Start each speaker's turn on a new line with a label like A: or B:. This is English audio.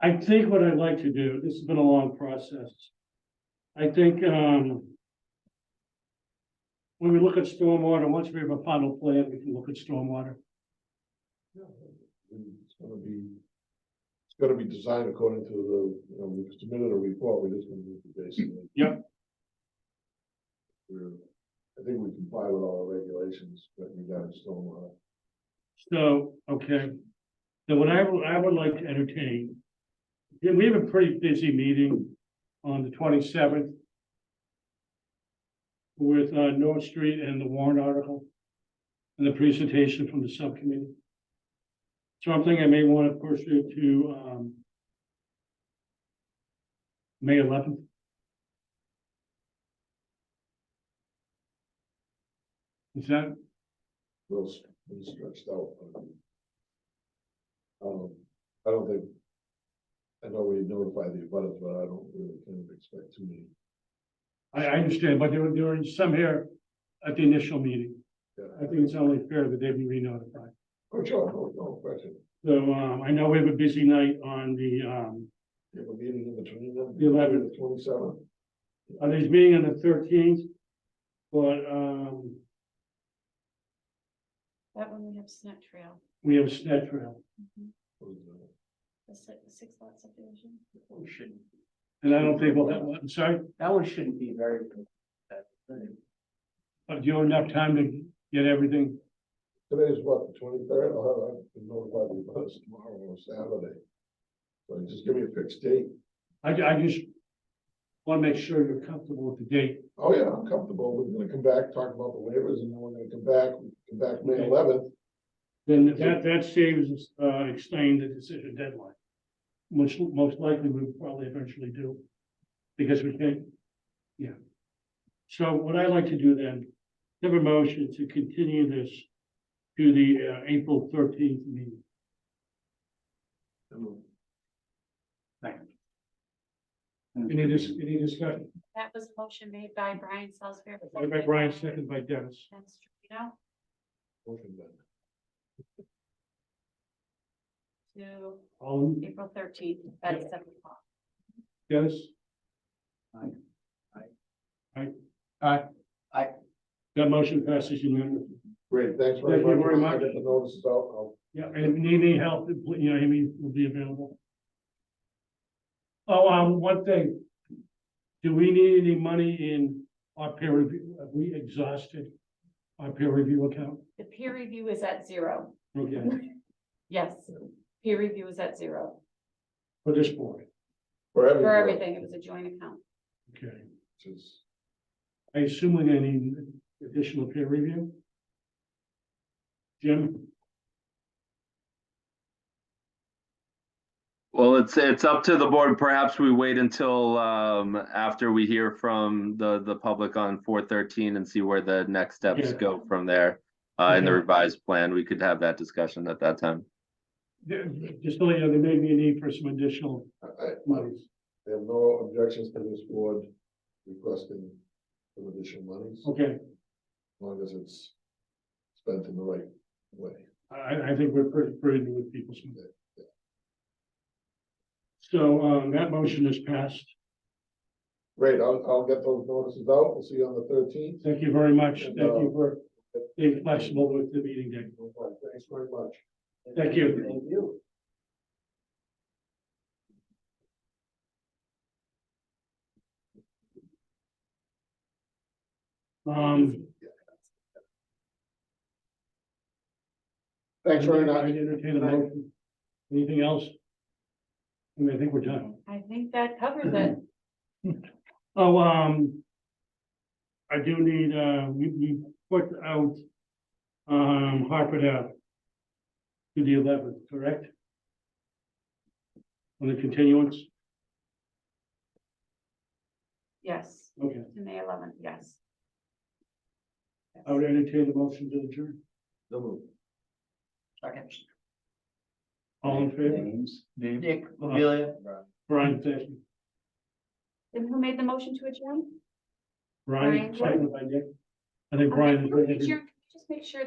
A: I think what I'd like to do, this has been a long process. I think, um. When we look at stormwater, once we have a final plan, we can look at stormwater.
B: It's gonna be, it's gonna be designed according to the, you know, we submitted a report, we're just gonna move it basically.
A: Yep.
B: We're, I think we comply with all the regulations, but we gotta still, uh,
A: So, okay. So what I would, I would like to entertain. yeah, we have a pretty busy meeting on the twenty-seventh. With, uh, North Street and the warrant article. And the presentation from the subcommittee. So I'm thinking I may want to push it to, um. May eleventh. Is that,
B: we'll, s- we'll stretch out. Um, I don't think, I know we notify the abutters, but I don't really kind of expect too many.
A: I, I understand, but there were, there were some here at the initial meeting. I
B: Yeah.
A: think it's only fair that they be re-notified.
B: Oh, sure, no, no question.
A: So, um, I know we have a busy night on the, um,
B: You have a meeting in between them?
A: The 11th.
B: The twenty-seventh?
A: on this meeting on the thirteenth, but, um,
C: That one we have snack trail,
A: we have Snet Trail.
C: the six, six lot subdivision.
D: one shouldn't,
A: And I don't think we'll have, I'm sorry,
D: that one shouldn't be very. that-
A: but do you have enough time to get everything?
B: Today's what, the twenty-third, I'll have, I'll be notified the bus tomorrow or Saturday. So you just give me a fixed date,
A: I, I just want to make sure you're comfortable with the date.
B: oh yeah, I'm comfortable, we're gonna come back, talk about the waivers, and then we're gonna come back, we come back May
A: Okay.
B: eleventh.
A: Then that, that saves, us, uh, extending the decision deadline. Which most likely we will probably eventually do, because we can't, yeah. So what I'd like to do then, have a motion to continue this to the, uh, April thirteenth meeting. Any dis- any discussion?
C: That was a motion made by Brian Salisbury.
A: Second by Brian, second by Dennis.
C: And Strino
B: Motion then.
C: to
A: All, in-
C: April thirteenth at seven o'clock.
A: Dennis?
D: Aye.
A: Aye. Aye.
D: Aye.
A: That motion passes unanimously.
B: Great, thanks very
A: Thank
B: much.
A: you very
B: I'll
A: much.
B: get the notices out, I'll-
A: Yeah, and if you need any help, you know, Amy will be available. Oh, um, one thing. Do we need any money in our peer review? Have we exhausted our peer review account?
C: The peer review is at zero.
A: Okay,
C: Yes, peer review is at zero.
A: for this board,
B: for everyone.
C: For everything, it was a joint account.
A: okay.
B: which is-
A: I assume we're gonna need additional peer review? Jim,
E: Well, it's, it's up to the board. Perhaps we wait until, um, after we hear from the, the public on four thirteen and see where the next steps
A: Yeah.
E: go from there. Uh, in the
A: Okay.
E: revised plan, we could have that discussion at that time.
A: there- just to let you know, there may be a need for some additional
B: I, I-
A: monies.
B: I have no objections to this board requesting some additional monies, as
A: Okay,
B: long as it's spent in the right way.
A: I, I think we're pretty prudent with people's.
B: Yeah, yeah.
A: So, um, that motion is passed.
B: Great, I'll, I'll get those notices out, we'll see you on the thirteenth.
A: Thank you very much.
B: And,
A: Thank you
B: uh,
A: for being flexible with the meeting day.
B: Thanks very much.
A: Thank you.
D: Thank you.
A: Um.
B: Thanks very
A: I
B: much.
A: entertain a motion. Anything else? I mean, I think we're done.
C: I think that covers
A: Mm-hmm.
C: it.
A: Oh, um. I do need, uh, we, we put out, um, Hartford Ave. To the eleventh, correct? On the continuance,
C: Yes,
A: okay,
C: to May eleventh, yes.
A: I would entertain the motion to adjourn.
B: No move.
D: Second.
A: All in favor?
D: Names. Dick, Amelia.
A: Brian, thank you.
C: And who made the motion to adjourn?
A: Brian,
C: Brian.
A: seconded by Nick. I think Brian is ready to.
C: Make sure- Just make sure